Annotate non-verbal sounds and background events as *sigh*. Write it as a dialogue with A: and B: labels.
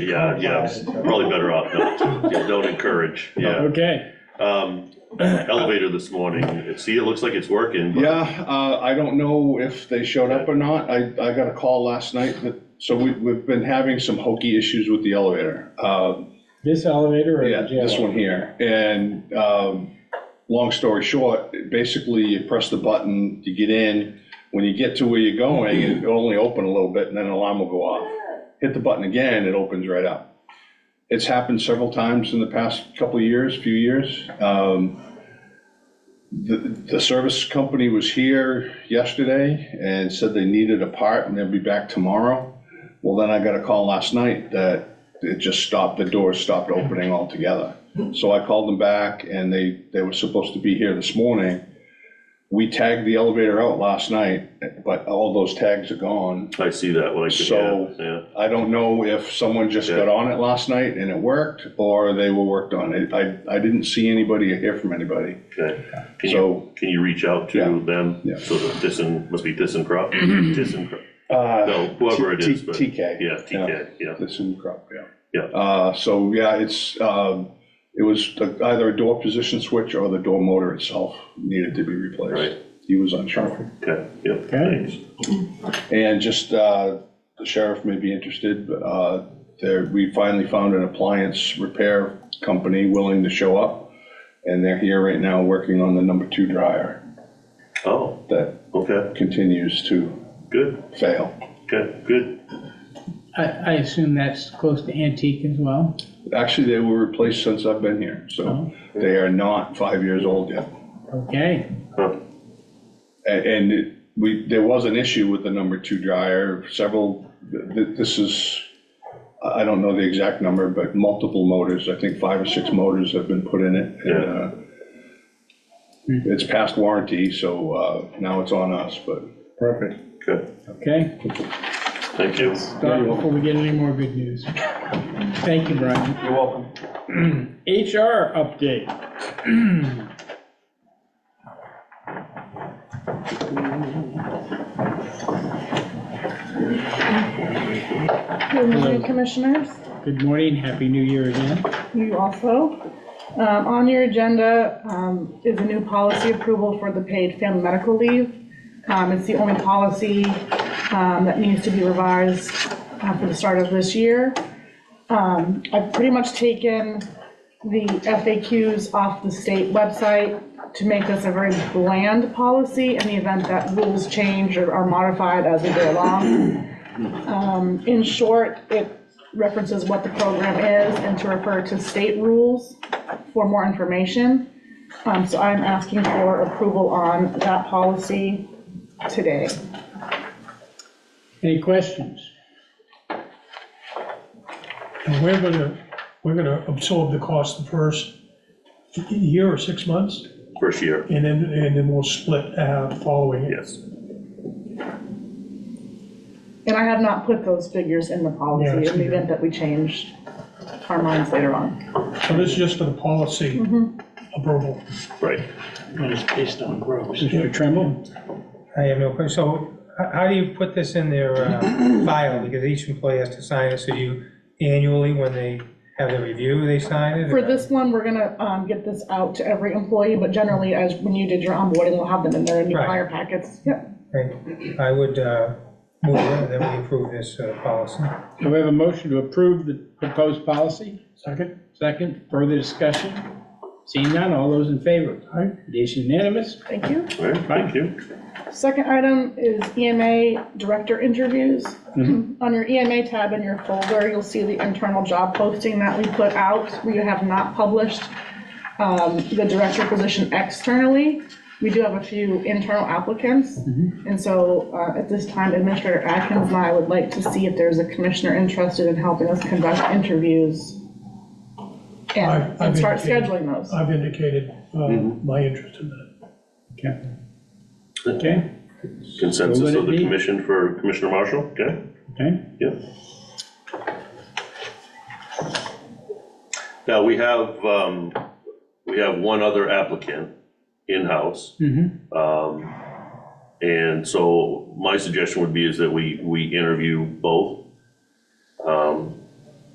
A: Yeah, yeah, it's probably better off not to, yeah, don't encourage, yeah.
B: Okay,
A: Um, elevator this morning, It- see, it looks like it's working, but
C: Yeah, uh, I don't know if they showed up or not. I, I got a call last night that, so we, we've been having some hokey issues with the elevator. Uh,
B: this elevator or
C: yeah,
B: the jail?
C: this one here. And, um, long story short, basically you press the button, you get in. When you get to where you're going,
B: *clears throat*
C: it'll only open a little bit and then an alarm will go off. Hit the button again, it opens right up. It's happened several times in the past couple of years, few years. Um, The, the service company was here yesterday and said they needed a part and they'll be back tomorrow. Well, then I got a call last night that it just stopped, the doors stopped opening altogether. So I called them back and they, they were supposed to be here this morning. We tagged the elevator out last night, but all those tags are gone.
A: I see that when I could, yeah,
C: So-
A: yeah.
C: I don't know if someone just got on it last night and it worked or they were worked on. I, I- I didn't see anybody or hear from anybody.
A: Okay. Can you,
C: So,
A: can you reach out to
C: Yeah.
A: them?
C: Yeah.
A: So that this and, must be this and crop, this and crop,
C: uh,
A: no, whoever it
C: T-
A: is, but,
C: T- TK.
A: yeah, TK, yeah.
C: This in crop, yeah.
A: Yeah.
C: Uh, so, yeah, it's, um, it was the- either a door position switch or the door motor itself needed to be replaced.
A: Right.
C: He was unsure.
A: Okay, yeah,
B: Okay.
A: thanks.
C: And just, uh, the sheriff may be interested, but, uh, there, we finally found an appliance repair company willing to show up. And they're here right now working on the number two dryer
A: Oh,
C: that
A: okay,
C: continues to
A: good,
C: fail.
A: okay, good.
D: I, I assume that's close to antique as well?
C: Actually, they were replaced since I've been here,
A: Oh.
C: so they are not five years old yet.
D: Okay,
A: Huh.
C: A- And it- we, there was an issue with the number two dryer, several, th- th- this is, I I don't know the exact number, but multiple motors, I think five or six motors have been put in it. and,
A: Yeah.
C: uh, It's past warranty, so uh, now it's on us, but.
B: perfect.
A: Okay,
D: okay.
A: thank you.
D: Stop before we get any more good news. Thank you, Brian.
C: You're welcome.
B: *clears throat* HR update.
E: Good morning, Commissioners.
B: Good morning, happy new year again.
E: You also. Um, On your agenda um, is a new policy approval for the paid family medical leave. Um, It's the only policy um, that needs to be revised uh, for the start of this year. Um, I've pretty much taken the FAQs off the state website to make this a very bland policy in the event that rules change or are modified as we go along. Um, In short, it references what the program is and to refer to state rules for more information. Um, So I'm asking for approval on that policy today.
B: Any questions?
F: And we're gonna, we're gonna absorb the cost the first year or six months,
A: First year,
F: and then, and then we'll split uh, following it.
A: yes,
E: And I have not put those figures in the
F: Yeah,
E: policy
F: it's
E: in the event that we change our minds later on.
F: So this is just for the policy approval.
A: right.
B: Mr. Tremble?
G: I have no question. So h- how do you put this in their uh, file? Because each employee has to sign it, so you annually, when they have their review, they sign it?
E: For this one, we're gonna um, get this out to every employee, but generally, as when you did your onboarding, we'll have them in their new
G: Right.
E: hire packets. Yep.
G: Right. I would uh, move that that we approve this uh, policy.
B: Do we have a motion to approve the proposed policy?
F: Second?
B: Second, further discussion? Seeing none, all those in favor?
F: Aye.
B: It is unanimous.
E: Thank you.
A: All right, thank you.
E: Second item is EMA director interviews. On your EMA tab in your folder, you'll see the internal job posting that we put out. We have not published um, the director position externally. We do have a few internal applicants. And so uh, at this time, Administrator Atkins and I would like to see if there's a commissioner interested in helping us conduct interviews and
F: I've- I've
E: and start
F: indicated-
E: scheduling those.
F: I've indicated uh, my interest in that.
B: Okay. Okay,
A: Consensus
B: So
A: of
B: would it
A: the
B: be-
A: commission for Commissioner Marshall, okay?
B: okay.
A: Yep. Now, we have, um, we have one other applicant in-house. Um, And so my suggestion would be is that we, we interview both. Um,